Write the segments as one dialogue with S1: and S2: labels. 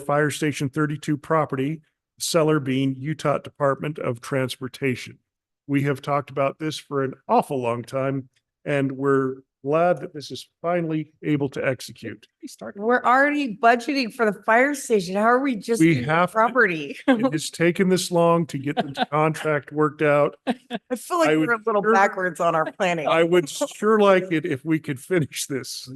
S1: Fire Station thirty-two property, seller being Utah Department of Transportation. We have talked about this for an awful long time, and we're glad that this is finally able to execute.
S2: We're already budgeting for the fire station. How are we just?
S1: We
S2: doing the
S1: have to-
S2: Property.
S1: It has taken this long to get the contract worked out.
S2: I feel
S1: I
S2: like
S1: would
S2: we're a little
S1: sure-
S2: backwards on our planning.
S1: I would sure like it if we could finish this.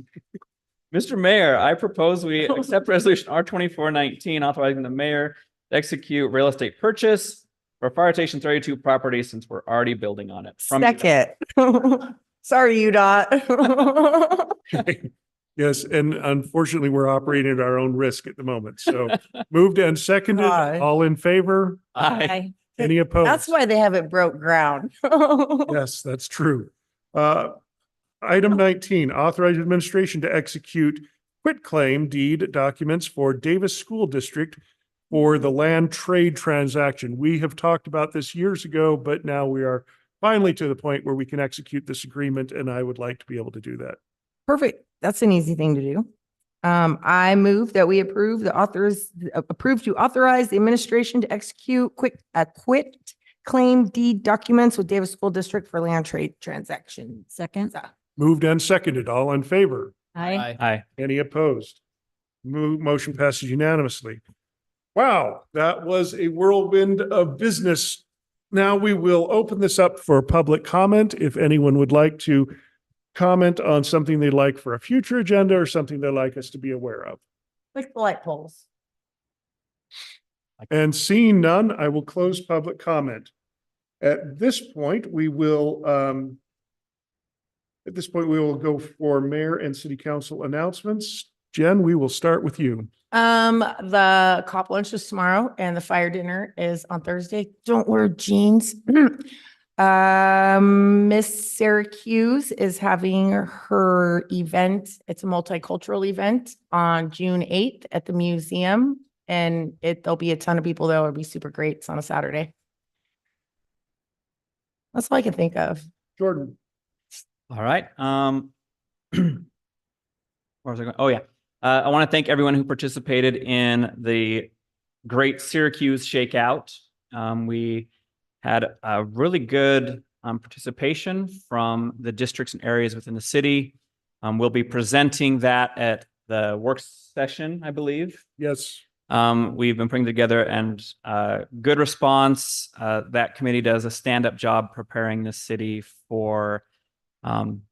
S3: Mr. Mayor, I propose we accept resolution R twenty-four nineteen authorizing the mayor to execute real estate purchase for fire station thirty-two property since we're already building on it. from-
S2: Second. Sorry, you dot.
S1: Yes, and unfortunately, we're operating at our own risk at the moment. So moved and seconded,
S2: Aye.
S1: all in favor,
S3: Aye.
S1: any opposed?
S2: That's why they haven't broke ground.
S1: Yes, that's true. Uh, Item nineteen, authorize administration to execute quitclaim deed documents for Davis School District for the land trade transaction. We have talked about this years ago, but now we are finally to the point where we can execute this agreement, and I would like to be able to do that.
S2: Perfect. That's an easy thing to do. Um, I move that we approve the authors, approve to authorize the administration to execute quick, a quit claim deed documents with Davis School District for land trade transactions.
S4: Second.
S1: Moved and seconded, all in favor?
S4: Aye.
S3: Aye.
S1: Any opposed? Mo- motion passes unanimously. Wow, that was a whirlwind of business. Now we will open this up for public comment. If anyone would like to comment on something they'd like for a future agenda or something they'd like us to be aware of.
S2: Click the light poles.
S1: And seeing none, I will close public comment. At this point, we will, um, at this point, we will go for mayor and city council announcements. Jen, we will start with you.
S2: Um, the cop lunch is tomorrow and the fire dinner is on Thursday. Don't wear jeans. Um, Miss Syracuse is having her event. It's a multicultural event on June eighth at the museum. And it, there'll be a ton of people there. It'll be super great. It's on a Saturday. That's all I can think of.
S1: Jordan.
S3: All right, um. Where was I going? Oh, yeah. Uh, I want to thank everyone who participated in the Great Syracuse Shakeout. Um, we had a really good, um, participation from the districts and areas within the city. Um, we'll be presenting that at the work session, I believe.
S1: Yes,
S3: Um, we've been putting together and uh, good response. Uh, that committee does a stand-up job preparing the city for um,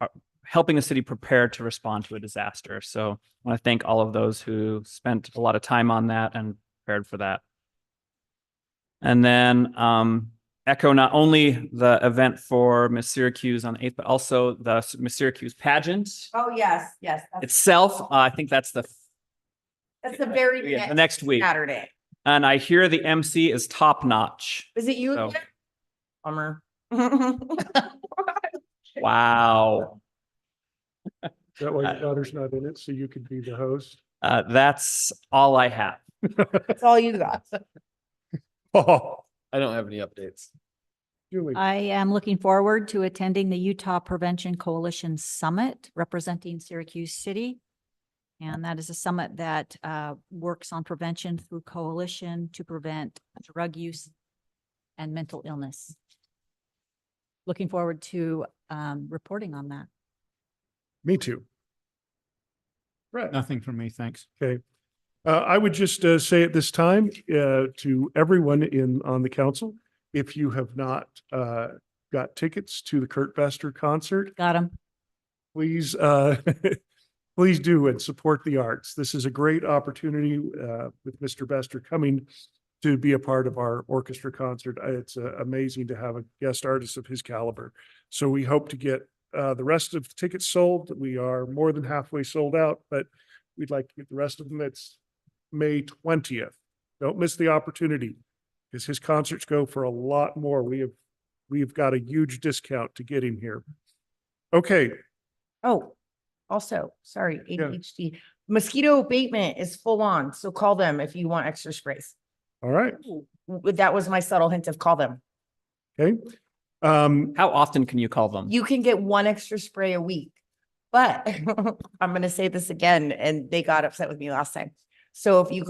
S3: uh, helping the city prepare to respond to a disaster. So I want to thank all of those who spent a lot of time on that and prepared for that. And then um, echo not only the event for Miss Syracuse on the 8th, but also the Miss Syracuse pageant
S2: Oh, yes, yes.
S3: itself. Uh, I think that's the
S2: That's the very
S3: yeah, the
S2: next
S3: next week.
S2: Saturday.
S3: And I hear the MC is top notch.
S2: Is it you?
S3: So,
S2: again? Bummer.
S3: wow.
S1: that way your
S3: Uh,
S1: daughter's not in it, so you could be the host.
S3: Uh, that's all I have.
S2: That's all you got.
S1: Oh,
S5: I don't have any updates.
S1: Julie,
S4: I am looking forward to attending the Utah Prevention Coalition Summit representing Syracuse City. And that is a summit that uh, works on prevention through coalition to prevent drug use and mental illness. Looking forward to um, reporting on that.
S1: me too. Brett.
S6: Nothing from me, thanks.
S1: Uh, I would just uh, say at this time uh, to everyone in on the council, if you have not uh, got tickets to the Kurt Bester concert,
S4: Got him.
S1: please, uh, please do and support the arts. This is a great opportunity, uh, with Mr. Bester coming to be a part of our orchestra concert. Uh, It's uh, amazing to have a guest artist of his caliber. So we hope to get, uh, the rest of the tickets sold. We are more than halfway sold out, but we'd like to get the rest of them. It's May twentieth. Don't miss the opportunity because his concerts go for a lot more. We have, we've got a huge discount to get him here. Okay,
S2: Oh, also, sorry,
S1: Yeah.
S2: ADHD. Mosquito abatement is full on, so call them if you want extra sprays.
S1: All right,
S2: W- That was my subtle hint of call them.
S1: okay. Um,
S3: How often can you call them?
S2: You can get one extra spray a week. But I'm gonna say this again, and they got upset with me last time. So if you